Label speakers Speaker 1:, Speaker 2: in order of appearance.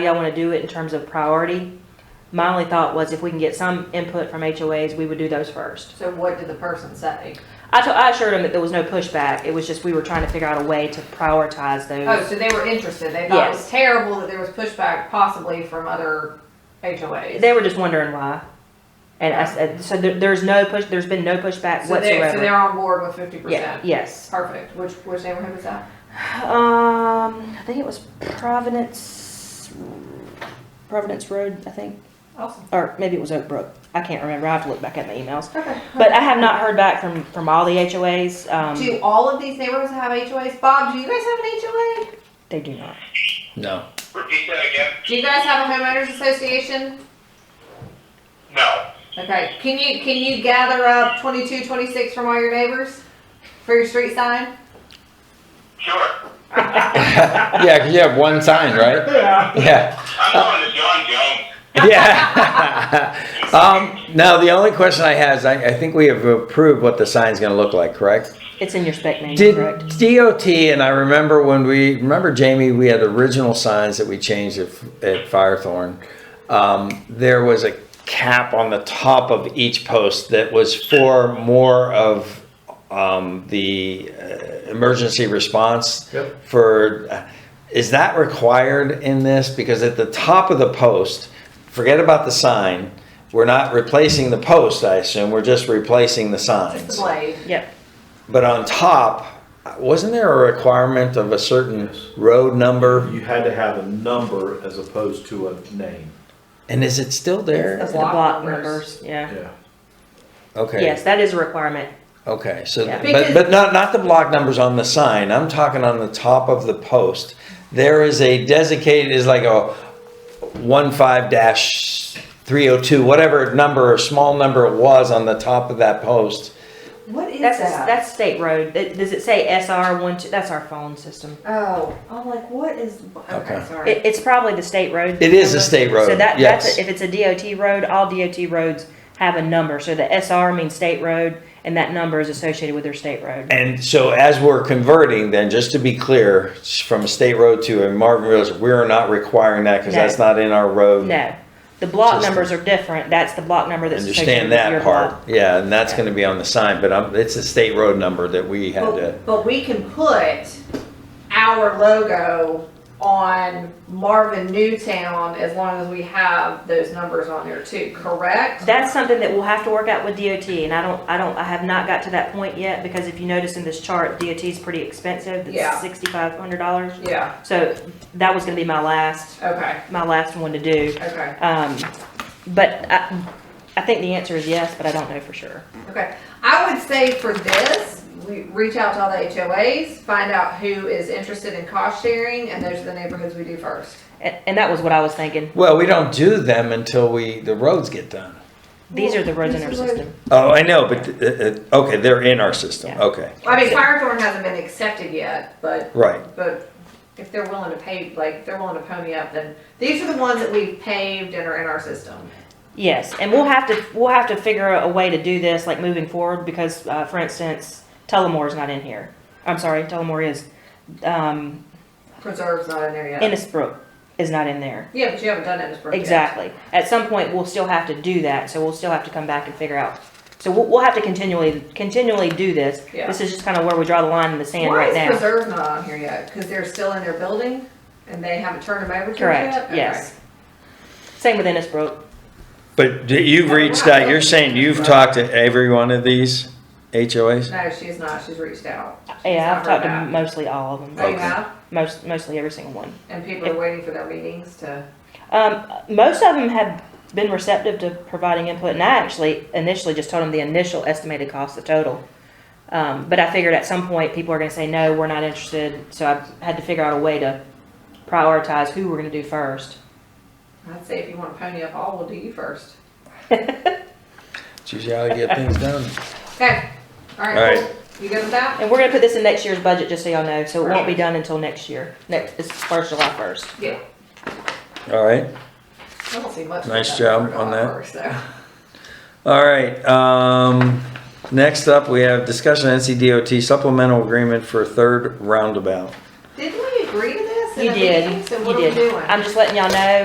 Speaker 1: y'all want to do it in terms of priority. My only thought was if we can get some input from HOAs, we would do those first.
Speaker 2: So what did the person say?
Speaker 1: I told, I assured them that there was no pushback. It was just we were trying to figure out a way to prioritize
Speaker 2: Oh,
Speaker 1: those.
Speaker 2: so they were interested. They thought it
Speaker 1: Yes.
Speaker 2: was terrible that there was pushback possibly from other HOAs.
Speaker 1: They were just wondering why. And I said, so there, there's no push, there's been no pushback
Speaker 2: So they're, so
Speaker 1: whatsoever.
Speaker 2: they're on board with fifty
Speaker 1: Yeah,
Speaker 2: percent.
Speaker 1: yes.
Speaker 2: Perfect. Which, which neighborhood was that?
Speaker 1: Um, I think it was Providence, Providence Road, I think,
Speaker 2: Awesome.
Speaker 1: or maybe it was Oak Brook. I can't remember. I have to look back at my emails.
Speaker 2: Okay.
Speaker 1: But I have not heard back from, from all the HOAs. Um,
Speaker 2: Do all of these neighborhoods have HOAs? Bob, do you guys have an HOA?
Speaker 1: they do not.
Speaker 3: No.
Speaker 4: Repeat that again?
Speaker 2: Do you guys have a homeowners association?
Speaker 4: No.
Speaker 2: Okay, can you, can you gather up twenty-two, twenty-six from all your neighbors for your street sign?
Speaker 4: Sure.
Speaker 3: yeah, 'cause you have one sign, right?
Speaker 4: Yeah.
Speaker 3: Yeah.
Speaker 4: I'm going to John Jones.
Speaker 3: Yeah. um, now, the only question I have is I, I think we have approved what the sign's going to look like, correct?
Speaker 1: It's in your spec manual,
Speaker 3: Did
Speaker 1: correct?
Speaker 3: DOT, and I remember when we, remember Jamie, we had original signs that we changed at, at Firethorn. Um, there was a cap on the top of each post that was for more of um, the uh, emergency response.
Speaker 5: Yep.
Speaker 3: For, uh, is that required in this? Because at the top of the post, forget about the sign. We're not replacing the post, I assume. We're just replacing the signs.
Speaker 2: Just the blade.
Speaker 1: Yep.
Speaker 3: But on top, wasn't there a requirement of a certain
Speaker 5: Yes.
Speaker 3: road number?
Speaker 5: You had to have a number as opposed to a name.
Speaker 3: And is it still there?
Speaker 1: That's the
Speaker 2: block
Speaker 1: block
Speaker 2: numbers.
Speaker 1: numbers, yeah.
Speaker 5: Yeah.
Speaker 3: Okay.
Speaker 1: Yes, that is a requirement.
Speaker 3: Okay, so,
Speaker 1: Yeah.
Speaker 3: but,
Speaker 2: Because-
Speaker 3: but not, not the block numbers on the sign, I'm talking on the top of the post. There is a designated, is like a one five dash three oh two, whatever number or small number it was on the top of that post.
Speaker 2: What is
Speaker 1: That's,
Speaker 2: that?
Speaker 1: that's state road. It- Does it say SR one, two, that's our phone system.
Speaker 2: Oh, I'm like, what is, okay,
Speaker 3: Okay.
Speaker 2: sorry.
Speaker 1: It, it's probably the state road.
Speaker 3: It is a
Speaker 1: number.
Speaker 3: state road,
Speaker 1: So that,
Speaker 3: yes.
Speaker 1: that's, if it's a DOT road, all DOT roads have a number. So the SR means state road and that number is associated with their state road.
Speaker 3: And so as we're converting, then just to be clear, from a state road to a Marvin Road, we're not requiring that because
Speaker 1: No.
Speaker 3: that's not in our road.
Speaker 1: No, the block
Speaker 3: Just-
Speaker 1: numbers are different. That's the block number that's associated
Speaker 3: Understand
Speaker 1: with your
Speaker 3: that
Speaker 1: block.
Speaker 3: part, yeah, and that's
Speaker 1: Yeah.
Speaker 3: gonna be on the sign, but i it's a state road number that we had to,
Speaker 2: But, but we can put our logo on Marvin Newtown as long as we have those numbers on there too, correct?
Speaker 1: That's something that we'll have to work out with DOT, and I don't, I don't, I have not got to that point yet, because if you notice in this chart, DOT is pretty expensive,
Speaker 2: Yeah.
Speaker 1: it's sixty-five hundred dollars.
Speaker 2: Yeah,
Speaker 1: So that was gonna be my last,
Speaker 2: okay,
Speaker 1: my last one to do.
Speaker 2: okay,
Speaker 1: Um, but I, I think the answer is yes, but I don't know for sure.
Speaker 2: okay. I would say for this, we reach out to all the HOAs, find out who is interested in cost sharing, and those are the neighborhoods we do first.
Speaker 1: And, and that was what I was thinking.
Speaker 3: well, we don't do them until we, the roads get done.
Speaker 1: These are the roads in
Speaker 2: Well,
Speaker 1: our
Speaker 2: this is
Speaker 1: system.
Speaker 3: Oh, I know, but, uh, uh, okay, they're in our system,
Speaker 1: Yeah.
Speaker 3: okay,
Speaker 2: Well, I mean, Firethorn hasn't been accepted yet, but,
Speaker 3: right,
Speaker 2: but if they're willing to pay, like, if they're willing to pony up, then these are the ones that we've paved and are in our system.
Speaker 1: Yes, and we'll have to, we'll have to figure out a way to do this, like moving forward, because, uh, for instance, Telemore's not in here. I'm sorry, Tullamore is. Um,
Speaker 2: Preserve's not in there yet.
Speaker 1: Innisbrook is not in there.
Speaker 2: Yeah, but you haven't done Innisbrook yet.
Speaker 1: Exactly. At some point, we'll still have to do that, so we'll still have to come back and figure out. So we'll, we'll have to continually, continually do this.
Speaker 2: Yeah.
Speaker 1: This is just kind of where we draw the line in the sand
Speaker 2: Why
Speaker 1: right
Speaker 2: is
Speaker 1: now.
Speaker 2: Preserve not on here yet? Because they're still in their building and they haven't turned them over to us yet?
Speaker 1: Correct,
Speaker 2: Okay.
Speaker 1: yes. Same with Innisbrook.
Speaker 3: but d- you've reached out, you're saying you've talked to every one of these HOAs?
Speaker 2: No, she's not. She's reached out. She's
Speaker 1: Yeah,
Speaker 2: not
Speaker 1: I've talked to
Speaker 2: heard back.
Speaker 1: mostly all of
Speaker 2: Oh,
Speaker 1: them,
Speaker 2: you
Speaker 3: Okay.
Speaker 2: have?
Speaker 1: most, mostly every single one.
Speaker 2: And people are waiting for their meetings to,
Speaker 1: Um, most of them have been receptive to providing input, and I actually initially just told them the initial estimated cost, the total. Um, but I figured at some point people are going to say no, we're not interested. So I had to figure out a way to prioritize who we're going to do first.
Speaker 2: I'd say if you want to pony up all, we'll do you first.
Speaker 3: It's usually how you get things done.
Speaker 2: Okay. All
Speaker 3: All
Speaker 2: right,
Speaker 3: right.
Speaker 2: cool. You good with that?
Speaker 1: And we're going to put this in next year's budget, just so y'all know. So it won't be done until next year. Next, it's first July first.
Speaker 2: Yeah.
Speaker 3: All right.
Speaker 2: I don't see much.
Speaker 3: Nice
Speaker 2: of
Speaker 3: job
Speaker 2: for
Speaker 3: on that.
Speaker 2: offer, so.
Speaker 3: All right, um, next up, we have discussion NCDOT supplemental agreement for third roundabout.
Speaker 2: Didn't we agree to this? sent
Speaker 1: You
Speaker 2: a
Speaker 1: did,
Speaker 2: meeting, so
Speaker 1: you
Speaker 2: what are we
Speaker 1: did.
Speaker 2: doing?
Speaker 1: I'm just letting y'all know